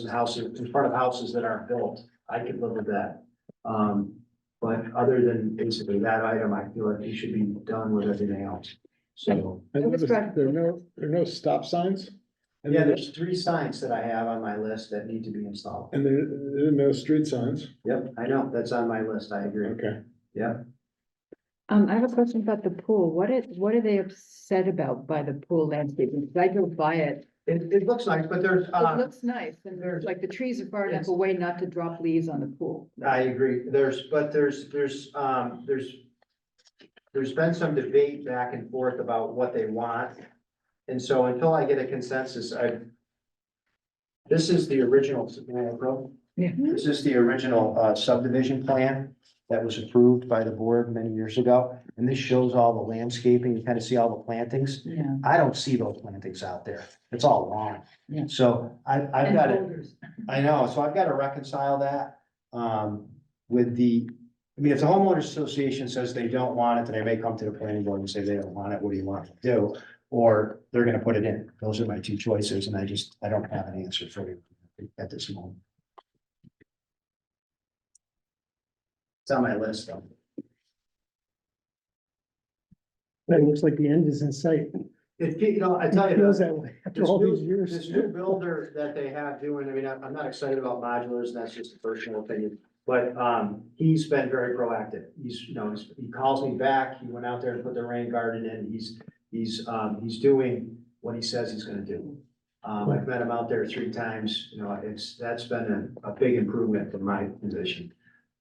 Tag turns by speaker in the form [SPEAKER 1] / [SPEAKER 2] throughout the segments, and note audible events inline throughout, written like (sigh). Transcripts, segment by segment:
[SPEAKER 1] in houses, in front of houses that aren't built, I could live with that. Um, but other than basically that item, I feel like we should be done with everything else, so.
[SPEAKER 2] I
[SPEAKER 3] I was
[SPEAKER 2] noticed
[SPEAKER 3] trying-
[SPEAKER 2] there are no, there are no stop signs. And
[SPEAKER 1] Yeah,
[SPEAKER 2] there-
[SPEAKER 1] there's three signs that I have on my list that need to be installed.
[SPEAKER 2] And there, there are no street signs.
[SPEAKER 1] Yep, I know, that's on my list, I agree,
[SPEAKER 2] Okay.
[SPEAKER 1] yep.
[SPEAKER 3] Um, I have a question about the pool. What is, what are they upset about by the pool landscaping? Because I go by it.
[SPEAKER 1] It, it looks nice, but there's,
[SPEAKER 3] It
[SPEAKER 1] uh,
[SPEAKER 3] looks nice and there's like the trees are far
[SPEAKER 1] Yes.
[SPEAKER 3] enough away not to drop leaves on the pool.
[SPEAKER 1] I agree, there's, but there's, there's, um, there's. There's been some debate back and forth about what they want. And so until I get a consensus, I. This is the original, uh, Ro-
[SPEAKER 3] Yeah.
[SPEAKER 1] this is the original uh, subdivision plan that was approved by the board many years ago. And this shows all the landscaping, you kind of see all the plantings.
[SPEAKER 3] Yeah.
[SPEAKER 1] I don't see those plantings out there. It's all lawn.
[SPEAKER 3] Yeah.
[SPEAKER 1] So I, I've
[SPEAKER 3] And
[SPEAKER 1] got it.
[SPEAKER 3] boulders.
[SPEAKER 1] I know, so I've got to reconcile that, um, with the, I mean, if the homeowners association says they don't want it, then they may come to the planning board and say they don't want it, what do you want to do? Or they're gonna put it in, those are my two choices, and I just, I don't have an answer for you at this moment. It's on my list, though.
[SPEAKER 4] But it looks like the end is in sight.
[SPEAKER 1] It, you know, I tell
[SPEAKER 4] It
[SPEAKER 1] you.
[SPEAKER 4] feels that way after
[SPEAKER 1] This
[SPEAKER 4] all these
[SPEAKER 1] new, this
[SPEAKER 4] years.
[SPEAKER 1] new builder that they have doing, I mean, I'm I'm not excited about modulars, that's just a personal opinion. But, um, he's been very proactive. He's, you know, he's- he calls me back, he went out there and put the rain garden in, he's, he's, um, he's doing what he says he's gonna do. Um, I've met him out there three times, you know, it's, that's been a, a big improvement from my position.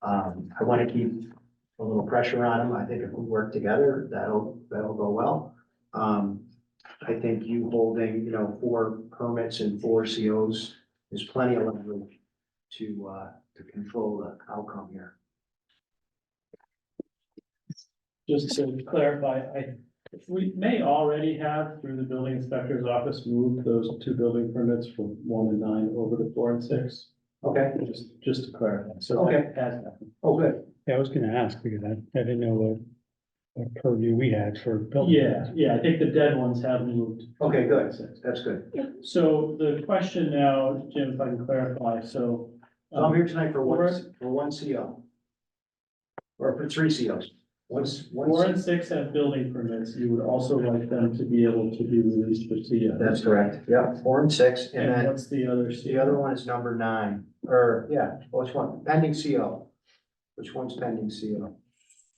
[SPEAKER 1] Um, I wanna keep a little pressure on him. I think if we work together, that'll, that'll go well. Um, I think you holding, you know, four permits and four COs is plenty of leverage to, uh, to control the outcome here.
[SPEAKER 5] Just to clarify, I, we may already have through the building inspector's office moved those two building permits from one and nine over to four and six.
[SPEAKER 1] Okay,
[SPEAKER 5] Just, just to clarify, so.
[SPEAKER 1] Okay.
[SPEAKER 5] that has happened.
[SPEAKER 1] oh, good.
[SPEAKER 4] Yeah, I was gonna ask because I, I didn't know what, what purview we had for building.
[SPEAKER 5] Yeah, yeah, I think the dead ones have moved.
[SPEAKER 1] Okay, good.
[SPEAKER 5] Six.
[SPEAKER 1] That's good.
[SPEAKER 5] So the question now, Jim, if I can clarify, so. um,
[SPEAKER 1] I'm here tonight for one, for one CO. Or for three COs. One's,
[SPEAKER 5] Four
[SPEAKER 1] one's.
[SPEAKER 5] and six have building permits, you would also like them to be able to be released for CO.
[SPEAKER 1] That's correct. Yeah, four and six. And
[SPEAKER 5] And
[SPEAKER 1] then
[SPEAKER 5] what's the other?
[SPEAKER 1] the other one is number nine, or, yeah, which one? Pending CO. Which one's pending CO?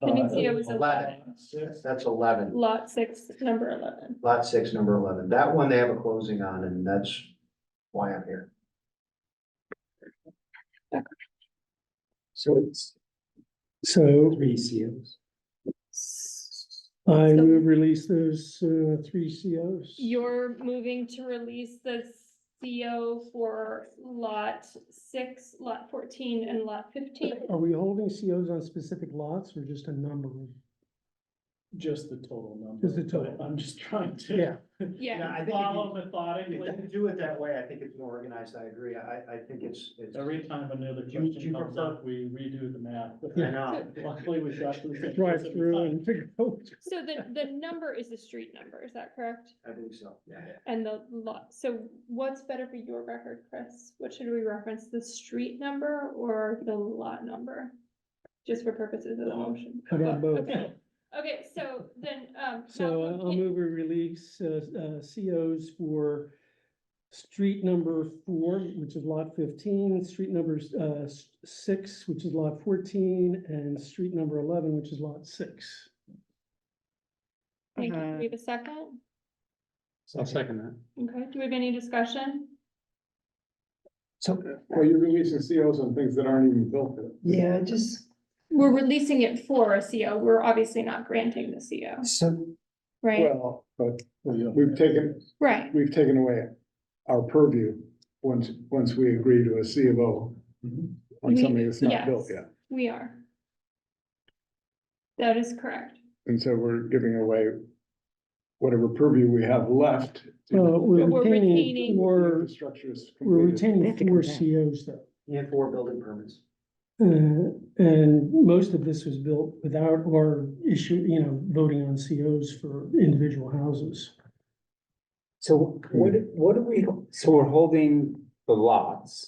[SPEAKER 6] Pending
[SPEAKER 5] Uh,
[SPEAKER 6] CO is
[SPEAKER 1] Eleven. That's eleven.
[SPEAKER 6] Lot six, number eleven.
[SPEAKER 1] Lot six, number eleven. That one they have a closing on and that's why I'm here.
[SPEAKER 4] So it's. So
[SPEAKER 5] Three COs.
[SPEAKER 4] I would release those, uh, three COs.
[SPEAKER 6] You're moving to release the CO for lot six, lot fourteen, and lot
[SPEAKER 4] (laughs)
[SPEAKER 6] fifteen.
[SPEAKER 4] Are we holding COs on specific lots or just a number? of
[SPEAKER 5] Just the total number.
[SPEAKER 4] Just the total.
[SPEAKER 5] I'm just trying to.
[SPEAKER 4] Yeah,
[SPEAKER 6] Yeah,
[SPEAKER 1] I
[SPEAKER 5] Follow
[SPEAKER 1] If
[SPEAKER 5] methodically,
[SPEAKER 1] you do it that way, I think it's more organized. I agree. I, I think it's, it's.
[SPEAKER 5] every time another
[SPEAKER 1] Do you- do you
[SPEAKER 5] question comes
[SPEAKER 1] prefer-
[SPEAKER 5] up, we redo the math.
[SPEAKER 1] I know.
[SPEAKER 5] Luckily, we got. to the same
[SPEAKER 4] drive
[SPEAKER 5] place every
[SPEAKER 4] through
[SPEAKER 5] time.
[SPEAKER 4] and figure out.
[SPEAKER 6] so the, the number is the street number, is that correct?
[SPEAKER 1] I believe so, yeah.
[SPEAKER 6] And the lot, so what's better for your record, Chris? What should we reference, the street number or the lot number? Just for purposes of the
[SPEAKER 4] Um,
[SPEAKER 6] motion.
[SPEAKER 4] How about both?
[SPEAKER 6] Okay, Okay, so then, um.
[SPEAKER 4] So
[SPEAKER 6] Malcolm,
[SPEAKER 4] I- I'll
[SPEAKER 6] it-
[SPEAKER 4] move we release uh, uh, COs for street number four, which is lot fifteen, street numbers uh, s- six, which is lot fourteen, and street number eleven, which is lot six.
[SPEAKER 6] Thank you. Do
[SPEAKER 3] Uh-huh.
[SPEAKER 6] we have a second?
[SPEAKER 2] I'll second that.
[SPEAKER 6] Okay, do we have any discussion?
[SPEAKER 4] So,
[SPEAKER 2] Well, you're releasing COs on things that aren't even built yet.
[SPEAKER 3] yeah, just.
[SPEAKER 6] We're releasing it for a CO. We're obviously not granting the CO,
[SPEAKER 4] So.
[SPEAKER 6] right?
[SPEAKER 2] Well, but we've taken,
[SPEAKER 6] Right,
[SPEAKER 2] we've taken away our purview once, once we agree to a C of O on
[SPEAKER 6] We-
[SPEAKER 2] something that's not
[SPEAKER 6] yes.
[SPEAKER 2] built yet.
[SPEAKER 6] we are. That is correct.
[SPEAKER 2] And so we're giving away whatever purview we have left. to
[SPEAKER 4] Uh, we're
[SPEAKER 6] But we're
[SPEAKER 4] retaining
[SPEAKER 6] retaining-
[SPEAKER 2] the
[SPEAKER 4] four,
[SPEAKER 2] structure is
[SPEAKER 4] we're
[SPEAKER 2] completed.
[SPEAKER 3] They have to come
[SPEAKER 4] retaining four
[SPEAKER 3] back.
[SPEAKER 4] COs though.
[SPEAKER 1] And four building permits.
[SPEAKER 4] Uh, and most of this was built without or issue, you know, voting on COs for individual houses.
[SPEAKER 7] So what, what are we, so we're holding the lots